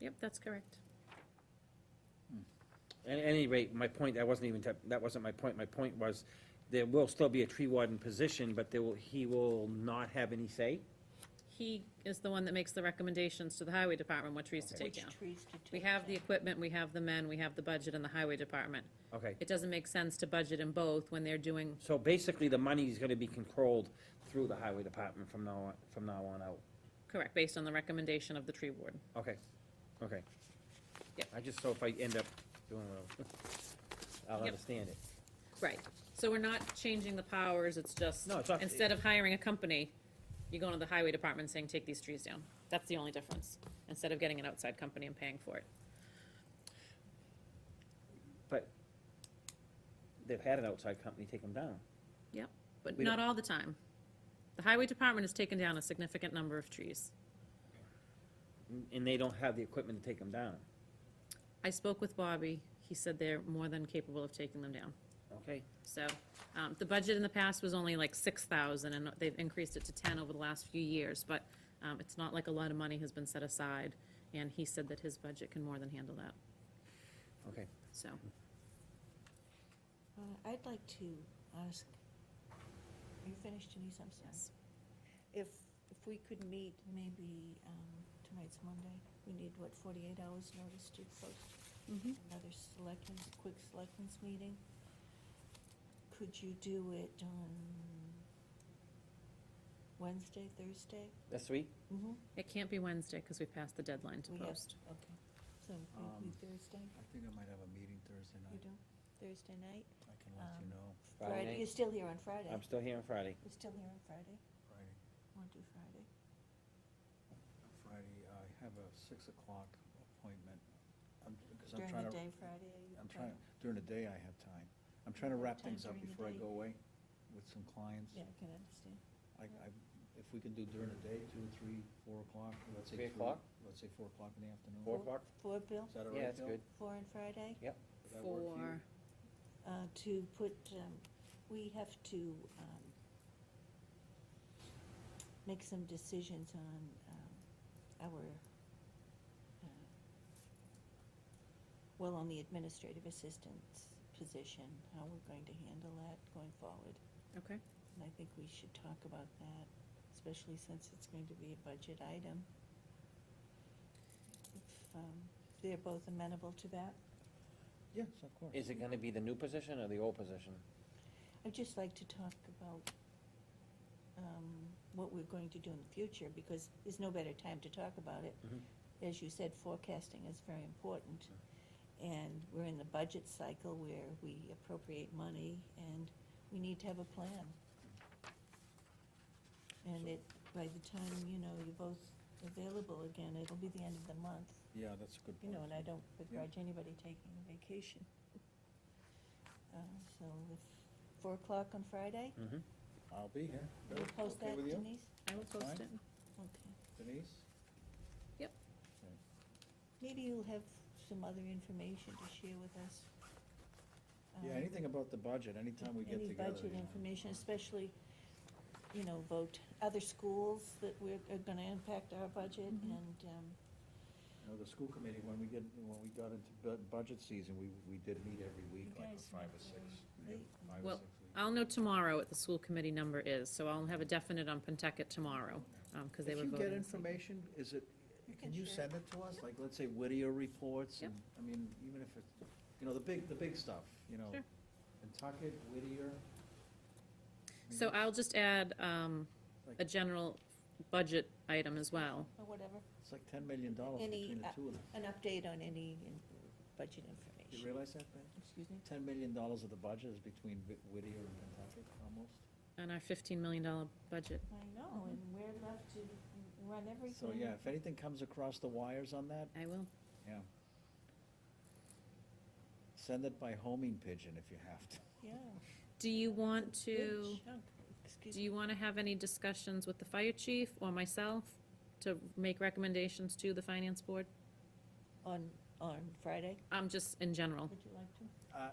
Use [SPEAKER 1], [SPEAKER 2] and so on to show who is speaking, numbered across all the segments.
[SPEAKER 1] Yep, that's correct.
[SPEAKER 2] At any rate, my point, that wasn't even, tep- that wasn't my point. My point was, there will still be a tree warden position, but there will, he will not have any say?
[SPEAKER 1] He is the one that makes the recommendations to the highway department what trees to
[SPEAKER 2] Okay.
[SPEAKER 1] take
[SPEAKER 3] Which
[SPEAKER 1] down.
[SPEAKER 3] trees to take
[SPEAKER 1] We have the
[SPEAKER 3] down.
[SPEAKER 1] equipment, we have the men, we have the budget in the highway department.
[SPEAKER 2] Okay,
[SPEAKER 1] It doesn't make sense to budget in both when they're doing,
[SPEAKER 2] so basically, the money is gonna be controlled through the highway department from now on, from now on out.
[SPEAKER 1] correct, based on the recommendation of the tree warden.
[SPEAKER 2] Okay, okay.
[SPEAKER 1] Yep.
[SPEAKER 2] I just, so if I end up doing what I'll, I'll
[SPEAKER 1] Yep.
[SPEAKER 2] understand it.
[SPEAKER 1] Right, so we're not changing the powers, it's just,
[SPEAKER 2] No, it's not-
[SPEAKER 1] instead of hiring a company, you're going to the highway department saying, take these trees down. That's the only difference, instead of getting an outside company and paying for it.
[SPEAKER 2] But they've had an outside company take them down.
[SPEAKER 1] But
[SPEAKER 2] We
[SPEAKER 1] not
[SPEAKER 2] don't-
[SPEAKER 1] all the time. The highway department has taken down a significant number of trees.
[SPEAKER 2] n- and they don't have the equipment to take them down,
[SPEAKER 1] I spoke with Bobby, he said they're more than capable of taking them down.
[SPEAKER 2] okay?
[SPEAKER 1] So, um, the budget in the past was only like six thousand, and they've increased it to ten over the last few years, but, um, it's not like a lot of money has been set aside, and he said that his budget can more than handle that,
[SPEAKER 2] Okay.
[SPEAKER 1] so.
[SPEAKER 3] Uh, I'd like to ask, are you finished, Denise? I'm sorry. If, if we could meet maybe, um, tonight's Monday, we need, what, forty-eight hours notice to post
[SPEAKER 1] Mm-hmm.
[SPEAKER 3] another selectmen's, quick selectmen's meeting? Could you do it on Wednesday, Thursday?
[SPEAKER 2] That's sweet.
[SPEAKER 3] Mm-hmm.
[SPEAKER 1] It can't be Wednesday, because we passed the deadline to
[SPEAKER 3] We have-
[SPEAKER 1] post.
[SPEAKER 3] Okay, so maybe
[SPEAKER 4] Um,
[SPEAKER 3] Thursday,
[SPEAKER 4] I think I might have a meeting Thursday
[SPEAKER 3] you
[SPEAKER 4] night.
[SPEAKER 3] do, Thursday night?
[SPEAKER 4] I can let you
[SPEAKER 3] Um,
[SPEAKER 4] know
[SPEAKER 2] Friday night?
[SPEAKER 3] You're still here on Friday?
[SPEAKER 2] I'm still here on Friday.
[SPEAKER 3] You're still here on Friday?
[SPEAKER 4] Friday.
[SPEAKER 3] Want to do Friday?
[SPEAKER 4] Friday, I have a six o'clock appointment. I'm- 'cause I'm
[SPEAKER 3] During
[SPEAKER 4] trying
[SPEAKER 3] the
[SPEAKER 4] to-
[SPEAKER 3] day Friday? are you
[SPEAKER 4] I'm
[SPEAKER 3] trying-
[SPEAKER 4] trying, during the day I have time. I'm trying to wrap
[SPEAKER 3] Time
[SPEAKER 4] things up
[SPEAKER 3] during the
[SPEAKER 4] before I
[SPEAKER 3] day.
[SPEAKER 4] go away with some clients.
[SPEAKER 3] Yeah, I can understand.
[SPEAKER 4] I, I, if we can do during the day, two, three, four o'clock, let's say.
[SPEAKER 2] Three o'clock?
[SPEAKER 4] Let's say four o'clock in the afternoon.
[SPEAKER 2] Four o'clock?
[SPEAKER 3] Four, Bill,
[SPEAKER 4] Is that all right,
[SPEAKER 2] Yeah, that's
[SPEAKER 4] Bill?
[SPEAKER 2] good.
[SPEAKER 3] four on Friday,
[SPEAKER 4] Does that work for you?
[SPEAKER 1] For,
[SPEAKER 3] uh, to put, um, we have to um, make some decisions on um, our, uh, well, on the administrative assistant's position, how we're going to handle that going forward.
[SPEAKER 1] okay,
[SPEAKER 3] And I think we should talk about that, especially since it's going to be a budget item. If um, they're both amenable to that.
[SPEAKER 4] Yes, of course.
[SPEAKER 2] Is it gonna be the new position or the old position?
[SPEAKER 3] I'd just like to talk about um, what we're going to do in the future, because there's no better time to talk about it.
[SPEAKER 2] Mhm.
[SPEAKER 3] As you said, forecasting is very important, and we're in the budget cycle where we appropriate money, and we need to have a plan. And it, by the time, you know, you're both available again, it'll be the end of the month,
[SPEAKER 4] Yeah, that's a good
[SPEAKER 3] you
[SPEAKER 4] point.
[SPEAKER 3] know, and I don't begrudge anybody taking a vacation. Uh, So if, four o'clock on Friday?
[SPEAKER 2] Mm-hmm.
[SPEAKER 4] I'll be here.
[SPEAKER 3] Will
[SPEAKER 4] Bill,
[SPEAKER 3] you post
[SPEAKER 4] okay
[SPEAKER 3] that,
[SPEAKER 4] with you?
[SPEAKER 3] Denise?
[SPEAKER 1] I will
[SPEAKER 4] That's
[SPEAKER 1] post
[SPEAKER 4] fine.
[SPEAKER 1] it.
[SPEAKER 3] Okay.
[SPEAKER 4] Denise?
[SPEAKER 3] Maybe you'll have some other information to share with us.
[SPEAKER 4] Yeah,
[SPEAKER 3] um,
[SPEAKER 4] anything about the budget, anytime we get together.
[SPEAKER 3] Any budget
[SPEAKER 4] you know.
[SPEAKER 3] information, especially, you know, vote other schools that we're, are gonna impact our budget
[SPEAKER 1] Mhm.
[SPEAKER 4] Mm-hmm.
[SPEAKER 3] and, um,
[SPEAKER 4] You know, the school committee, when we get, when we got into bu- budget season, we, we did meet every week,
[SPEAKER 3] You
[SPEAKER 4] like
[SPEAKER 3] guys
[SPEAKER 4] for five
[SPEAKER 3] met
[SPEAKER 4] or six.
[SPEAKER 3] very
[SPEAKER 4] yeah,
[SPEAKER 3] late.
[SPEAKER 4] Five or
[SPEAKER 1] Well,
[SPEAKER 4] six weeks.
[SPEAKER 1] I'll know tomorrow what the school committee number is, so I'll have a definite on Penticott tomorrow, um, because they were
[SPEAKER 4] If you get
[SPEAKER 1] voting. this evening.
[SPEAKER 4] information, is it,
[SPEAKER 3] You can
[SPEAKER 4] can you
[SPEAKER 3] share.
[SPEAKER 4] send it to us? Like, let's say Whittier reports
[SPEAKER 1] Yep.
[SPEAKER 4] and, I mean, even if it's, you know, the big, the big stuff, you know.
[SPEAKER 1] Sure.
[SPEAKER 4] Nantucket, Whittier. I
[SPEAKER 1] So
[SPEAKER 4] mean,
[SPEAKER 1] I'll just add, um, a general budget item as well.
[SPEAKER 3] or whatever,
[SPEAKER 4] It's like ten million dollars
[SPEAKER 3] Any,
[SPEAKER 4] between the
[SPEAKER 3] uh,
[SPEAKER 4] two of them.
[SPEAKER 3] an update on any in- budget
[SPEAKER 4] You
[SPEAKER 3] information.
[SPEAKER 4] realize that, Ben?
[SPEAKER 3] Excuse me?
[SPEAKER 4] Ten million dollars of the budget is between Whi- Whittier and Nantucket, almost.
[SPEAKER 1] on our fifteen million dollar budget.
[SPEAKER 3] I
[SPEAKER 1] Mm-hmm.
[SPEAKER 3] know, and we're left to run everything.
[SPEAKER 4] So, yeah, if anything comes across the wires on that,
[SPEAKER 1] I will.
[SPEAKER 4] Yeah. Send it by homing pigeon if you have to.
[SPEAKER 3] Yeah.
[SPEAKER 1] Do you want to,
[SPEAKER 3] Big chunk. Excuse
[SPEAKER 1] do you want to have any discussions with the fire chief or myself to make recommendations to the finance board?
[SPEAKER 3] On, on Friday,
[SPEAKER 1] I'm just in general.
[SPEAKER 3] would you like to?
[SPEAKER 4] Uh,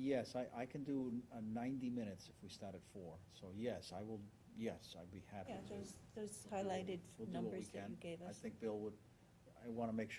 [SPEAKER 4] Yes, I, I can do uh, 90 minutes if we start at four. So yes, I will, yes, I'd be happy
[SPEAKER 3] Yeah,
[SPEAKER 4] to.
[SPEAKER 3] those, those
[SPEAKER 4] We'll do-
[SPEAKER 3] highlighted
[SPEAKER 4] we'll do what we
[SPEAKER 3] numbers that you
[SPEAKER 4] can.
[SPEAKER 3] gave us.
[SPEAKER 4] I think Bill would, I want to make sure